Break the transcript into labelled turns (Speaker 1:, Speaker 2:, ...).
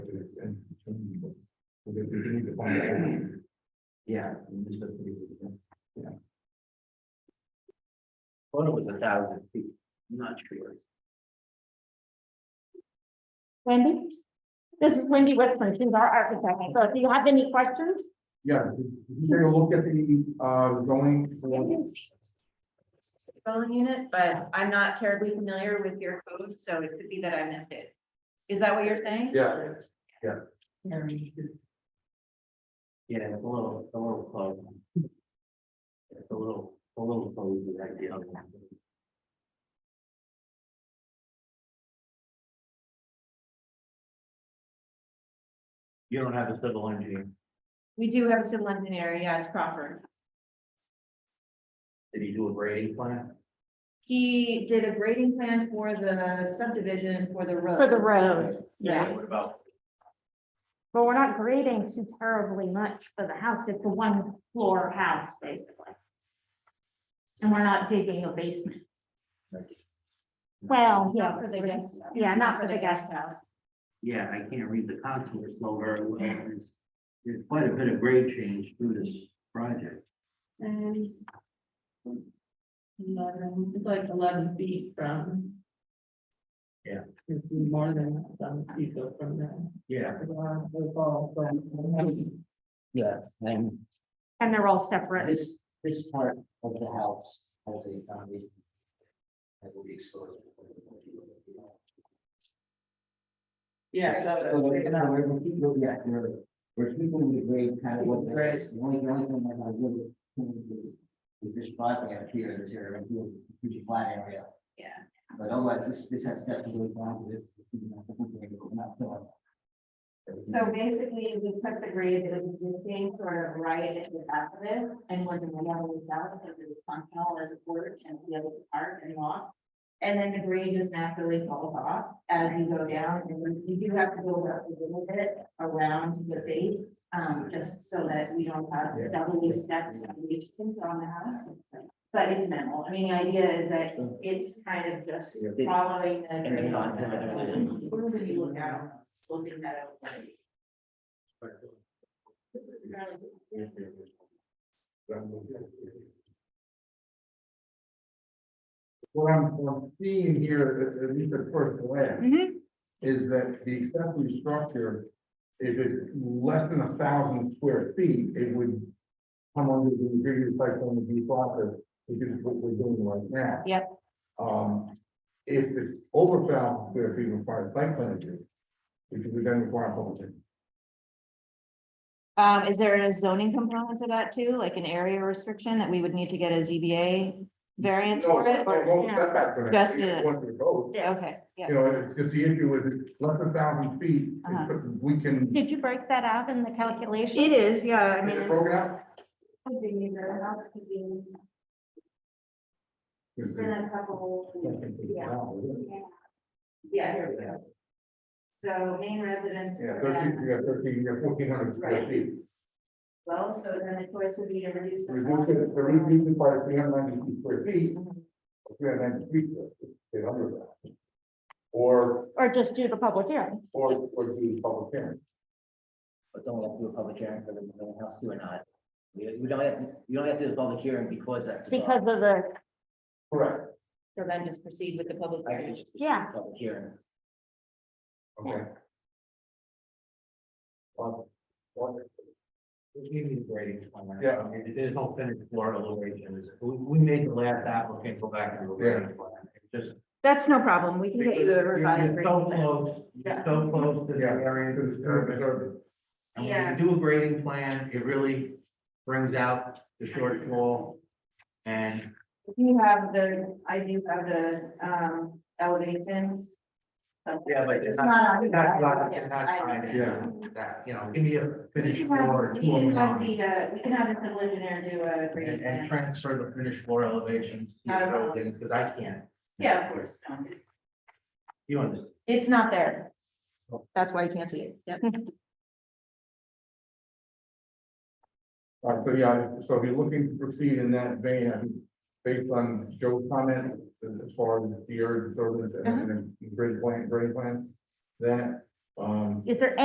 Speaker 1: we we need to find out.
Speaker 2: Yeah. we just put three feet in, yeah. Thought it was a thousand feet, I'm not sure.
Speaker 3: Wendy? This is Wendy Westman, she's our architect, so if you have any questions?
Speaker 1: Yeah, did did you take a look at the uh zoning? for-
Speaker 4: Building unit, but I'm not terribly familiar with your code, so it could be that I missed it. Is that what you're saying?
Speaker 1: Yeah,
Speaker 2: Yeah, it's a little, it's a little close. It's a little, a little close to that deal. You don't have a civil engineer,
Speaker 4: We do have a civil engineer, yeah, it's Crawford.
Speaker 2: did he do a grading plan?
Speaker 4: He did a grading plan for the subdivision for the road.
Speaker 3: For the road, yeah,
Speaker 2: What about,
Speaker 3: but we're not grading too terribly much for the house, it's a one floor house, basically. And we're not digging a basement. Well, yeah,
Speaker 4: Not for the guest.
Speaker 3: yeah, not for the guest house.
Speaker 2: yeah, I can't read the contours so very well, there's, there's quite a bit of grade change through this project.
Speaker 4: And. Eleven, it's like eleven feet from.
Speaker 2: Yeah.
Speaker 4: It's More than some feet go from there.
Speaker 2: Yeah.
Speaker 4: From
Speaker 2: Yeah, and
Speaker 3: And they're all separate.
Speaker 2: This, this part of the house has a foundation. That will be exposed.
Speaker 5: Yeah,
Speaker 2: So we're gonna, we're gonna keep looking at your, we're keeping the grade kind of what there is, the only, the only thing that I really. can do Is this driveway up here, this area, right here, huge flat area,
Speaker 4: Yeah.
Speaker 2: but otherwise, this, this has definitely gone with.
Speaker 4: So basically, we took the grade that was existing sort of right at the back of this, and when the metal was out, so it was functional as a porch and the other part and lock. And then the grade just naturally falls off as you go down, and you- you do have to build up a little bit around the base, um, just so that we don't have doubly stepped elevations on the house. But it's minimal, I mean, the idea is that it's kind of just following the grade on the. What was it you look at, sloping that out? like, this is really-
Speaker 1: What I'm, what I'm seeing here, at- at least at first glance,
Speaker 4: Mm-hmm.
Speaker 3: Mhm.
Speaker 1: is that the accessory structure, if it's less than a thousand square feet, it would come under the review cycle on the B process, which is what we're doing right now.
Speaker 4: Yep.
Speaker 1: Um, if it's over thousand square feet requires site plan review, which would then require a public hearing.
Speaker 4: Um, is there a zoning component to that too, like an area restriction that we would need to get a ZBA variance for it?
Speaker 1: No,
Speaker 4: or-
Speaker 1: no, no setback for that.
Speaker 4: Just in it.
Speaker 1: One for both.
Speaker 3: no.
Speaker 4: Okay, yeah,
Speaker 1: You know, it's just the issue is it's less than a thousand feet,
Speaker 4: Uh-huh.
Speaker 1: it's- we can.
Speaker 3: Did you break that out in the calculation?
Speaker 4: it is, yeah, I
Speaker 1: Is it
Speaker 4: mean.
Speaker 1: broken out?
Speaker 4: It's
Speaker 1: Is
Speaker 4: a couple,
Speaker 1: it-
Speaker 4: yeah, here we go. So main residence.
Speaker 1: Yeah, thirteen, you got thirteen, you got fourteen hundred square
Speaker 4: Right.
Speaker 1: feet.
Speaker 4: Well, so then the choice would be to reduce. the
Speaker 1: Reduce
Speaker 4: size.
Speaker 1: it, the reduce it by three hundred ninety square feet,
Speaker 4: Mm-hmm.
Speaker 1: three hundred ninety feet, eight hundred. Or,
Speaker 3: Or just do the public hearing?
Speaker 1: or, or do public hearing.
Speaker 2: But don't we have to do a public hearing for the, for the house too or not? We, we don't have to, you don't have to do a public hearing because that's. a-
Speaker 3: Because of the,
Speaker 1: Correct,
Speaker 4: So then just proceed with the public.
Speaker 2: I think
Speaker 4: hearing.
Speaker 2: it's just a
Speaker 3: Yeah.
Speaker 2: Public hearing.
Speaker 1: okay. Well, well,
Speaker 2: We give you the grading plan. right?
Speaker 1: Yeah.
Speaker 2: I mean, There's no finished floor elevations. We, we made the last applicant go back and do a grading plan. It's just.
Speaker 4: That's no problem, we can get you a
Speaker 2: You're-
Speaker 4: revised.
Speaker 2: you're So
Speaker 4: grading plan.
Speaker 2: close, you're so close to the
Speaker 1: Yeah.
Speaker 2: area of disturbance.
Speaker 1: Disturbance.
Speaker 2: And when you do a grading plan, it really brings out the shortfall. And
Speaker 4: You have the, I do have the, um, elevations. So-
Speaker 2: Yeah, but it's
Speaker 4: It's
Speaker 2: not,
Speaker 4: not on
Speaker 2: it's
Speaker 4: here.
Speaker 2: not,
Speaker 4: Yeah,
Speaker 2: it's not
Speaker 4: I
Speaker 2: trying
Speaker 4: understand.
Speaker 2: to,
Speaker 1: Yeah.
Speaker 2: that, you know, give me a
Speaker 4: We
Speaker 2: finished
Speaker 4: can have-
Speaker 2: floor.
Speaker 4: We can have
Speaker 2: and,
Speaker 4: the, uh, we can have the civil engineer do a grading
Speaker 2: and
Speaker 4: plan.
Speaker 2: transfer the finished floor elevations, to
Speaker 4: Not a
Speaker 2: the
Speaker 4: problem.
Speaker 2: buildings, because I can't,
Speaker 4: Yeah, of course. no.
Speaker 2: you understand?
Speaker 4: It's not there.
Speaker 2: Oh.
Speaker 4: That's why you can't see it. Yep.
Speaker 1: All right, Uh, so yeah, so if you're looking to proceed in that vein, I think based on Joe's comment, uh, as far as the area disturbance and and the grade plan, grade plan, that, um,
Speaker 3: is there